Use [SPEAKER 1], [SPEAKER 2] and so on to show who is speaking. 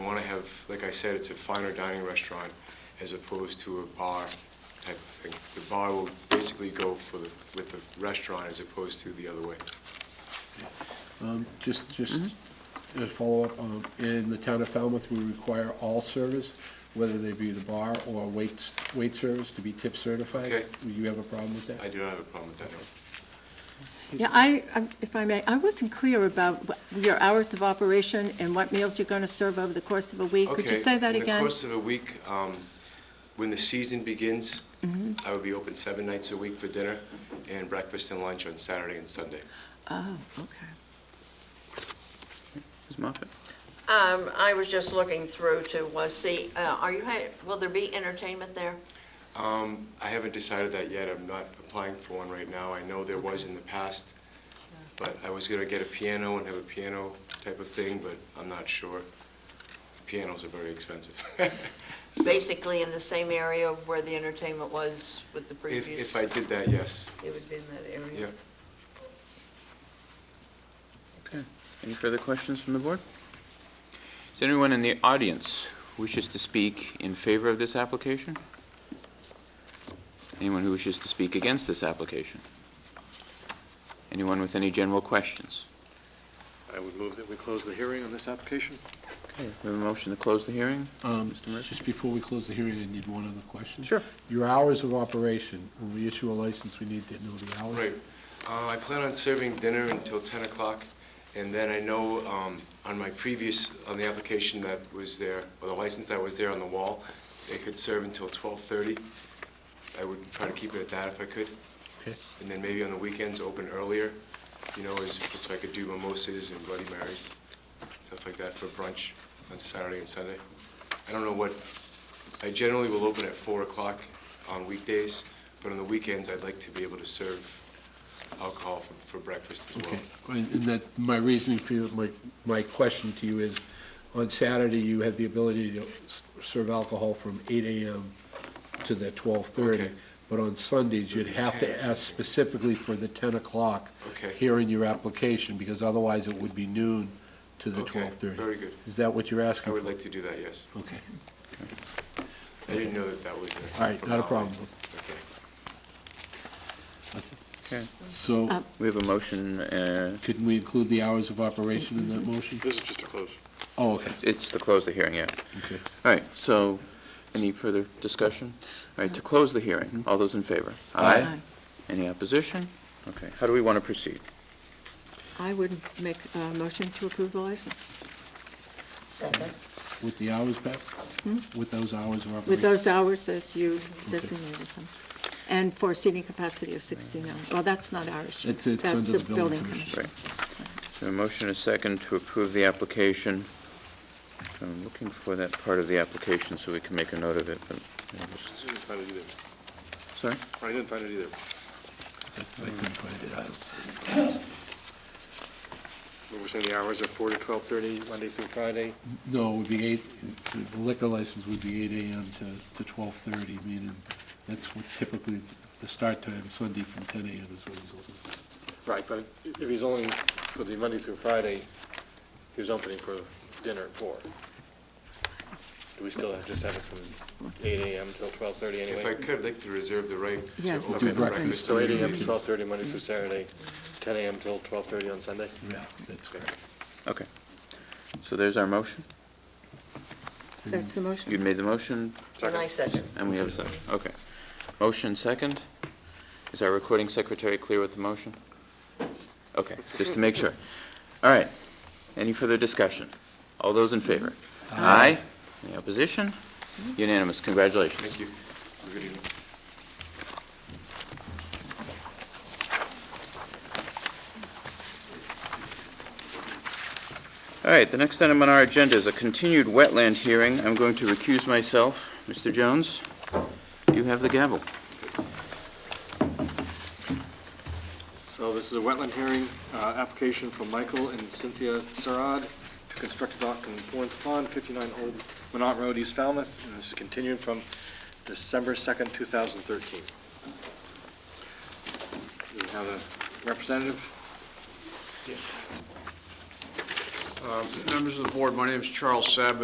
[SPEAKER 1] of, like I said, it's a finer dining restaurant as opposed to a bar type of thing. The bar will basically go for the, with the restaurant as opposed to the other way.
[SPEAKER 2] Um, Just, just a follow-up, um, in the town of Falmouth, we require all service, whether they be the bar or wait, wait service, to be tip certified.
[SPEAKER 1] Okay.
[SPEAKER 2] Do you have a problem with
[SPEAKER 1] I
[SPEAKER 2] that?
[SPEAKER 1] do not have a problem with that, no.
[SPEAKER 3] Yeah, I, I- if I may, I wasn't clear about what- your hours of operation and what meals you're going to serve over the course of a week. Could you
[SPEAKER 1] Okay,
[SPEAKER 3] say that
[SPEAKER 1] In the
[SPEAKER 3] again?
[SPEAKER 1] course of a week, um, when the season begins,
[SPEAKER 3] Mm-hmm.
[SPEAKER 1] I would be open seven nights a week for dinner and breakfast and lunch on Saturday and Sunday.
[SPEAKER 3] Oh, okay.
[SPEAKER 4] Ms. Moffett?
[SPEAKER 5] Um, I was just looking through to, was, see, uh, are you, ha- will there be entertainment there?
[SPEAKER 1] Um, I haven't decided that yet. I'm not applying for one right now. I know there was in the past, but I was gonna get a piano and have a piano type of thing, but I'm not sure. Pianos are very expensive. So,
[SPEAKER 5] Basically in the same area where the entertainment was with the
[SPEAKER 1] If,
[SPEAKER 5] previous?
[SPEAKER 1] if I did that, yes,
[SPEAKER 5] It would be in that area?
[SPEAKER 1] yeah.
[SPEAKER 4] Okay. Any further questions from the board? Is there anyone in the audience who wishes to speak in favor of this application? Anyone who wishes to speak against this application? Anyone with any general questions?
[SPEAKER 6] I would move that we close the hearing on this application.
[SPEAKER 4] Okay, we have a motion to close the hearing?
[SPEAKER 2] Um,
[SPEAKER 4] Mr. Murphy?
[SPEAKER 2] Just before we close the hearing, I need one other question.
[SPEAKER 4] Sure.
[SPEAKER 2] Your hours of operation, when we issue a license, we need to know the hours.
[SPEAKER 1] Right. Uh, I plan on serving dinner until 10 o'clock, and then I know um, on my previous, on the application that was there, or the license that was there on the wall, they could serve until 12:30. I would try to keep it at that if I could,
[SPEAKER 2] Okay.
[SPEAKER 1] and then maybe on the weekends, open earlier, you know, as, if I could do mimosas and Bloody Marys, stuff like that for brunch on Saturday and Sunday. I don't know what, I generally will open at 4 o'clock on weekdays, but on the weekends, I'd like to be able to serve alcohol for, for breakfast as well.
[SPEAKER 2] Okay, and and that, my reasoning for, your- my, my question to you is, on Saturday, you have the ability to s- serve alcohol from eight AM to the twelve-thirty,
[SPEAKER 1] Okay.
[SPEAKER 2] but on Sundays, you'd have
[SPEAKER 1] Ten,
[SPEAKER 2] to ask
[SPEAKER 1] something.
[SPEAKER 2] specifically for the ten o'clock
[SPEAKER 1] Okay.
[SPEAKER 2] here in your application, because otherwise it would be noon to the
[SPEAKER 1] Okay,
[SPEAKER 2] twelve-thirty.
[SPEAKER 1] very good.
[SPEAKER 2] Is that what you're
[SPEAKER 1] I
[SPEAKER 2] asking?
[SPEAKER 1] would
[SPEAKER 2] for?
[SPEAKER 1] like to do that, yes.
[SPEAKER 2] Okay,
[SPEAKER 1] I didn't know that that was there.
[SPEAKER 2] All right, not a problem.
[SPEAKER 1] Okay.
[SPEAKER 4] Okay.
[SPEAKER 2] so
[SPEAKER 3] Uh,
[SPEAKER 4] We have a motion, uh,
[SPEAKER 2] couldn't we include the hours of operation in that motion?
[SPEAKER 6] This is just a close.
[SPEAKER 2] Oh, okay,
[SPEAKER 4] it's to close the hearing, yeah.
[SPEAKER 2] okay.
[SPEAKER 4] All right, so, any further discussion? All right, to close the hearing, all those in favor?
[SPEAKER 3] Aye.
[SPEAKER 4] Any opposition? Okay, how do we want to proceed?
[SPEAKER 3] I would make a motion to approve the license
[SPEAKER 5] Second.
[SPEAKER 2] With the hours, Pat? With those hours of operation?
[SPEAKER 3] Hmm? with those hours as you designated them, and for seating capacity of 69. Well, that's not our issue.
[SPEAKER 2] It's- it's
[SPEAKER 3] That's
[SPEAKER 2] under the building commission.
[SPEAKER 4] Right. So a motion and a second to approve the application. I'm looking for that part of the application so we can make a note of it, but, I
[SPEAKER 6] I
[SPEAKER 4] just-
[SPEAKER 6] didn't find it either.
[SPEAKER 4] sorry?
[SPEAKER 6] I didn't find it either.
[SPEAKER 2] I couldn't find it out.
[SPEAKER 6] We were saying the hours are four to twelve-thirty, Monday through Friday.
[SPEAKER 2] No, it would be eight, the liquor license would be eight AM to, to twelve-thirty, meaning that's what typically the start time, Sunday from ten AM is what he's looking for.
[SPEAKER 6] Right, but if he's only, with the Monday through Friday, he was opening for dinner at four. Do we still have, just have it from eight AM till twelve-thirty anyway?
[SPEAKER 1] If I could, I'd like to reserve the right to
[SPEAKER 3] Yeah.
[SPEAKER 1] open
[SPEAKER 2] Do
[SPEAKER 1] for breakfast.
[SPEAKER 2] breakfast.
[SPEAKER 6] So eight AM to twelve-thirty, Monday through Saturday, ten AM till twelve-thirty on Sunday?
[SPEAKER 2] Yeah, that's correct.
[SPEAKER 4] Okay. So there's our motion.
[SPEAKER 3] That's the
[SPEAKER 4] You
[SPEAKER 3] motion.
[SPEAKER 4] made the motion,
[SPEAKER 5] And I second.
[SPEAKER 4] and we have a second. Okay. Motion second. Is our recording secretary clear with the motion? Okay, just to make sure. All right. Any further discussion? All those in favor? Aye. Any opposition? Unanimous. Congratulations.
[SPEAKER 1] Thank you. Have a Good evening.
[SPEAKER 4] All right, the next item on our agenda is a continued wetland hearing. I'm going to recuse myself. Mr. Jones, you have the gavel.
[SPEAKER 6] So this is a wetland hearing, uh, application from Michael and Cynthia Sarad to construct a dock in Florence Pond, 59 Old Minot Road, East Falmouth, and this is continuing from December 2nd, 2013. We have a representative.
[SPEAKER 7] Members of the board, my name is Charles Sabat.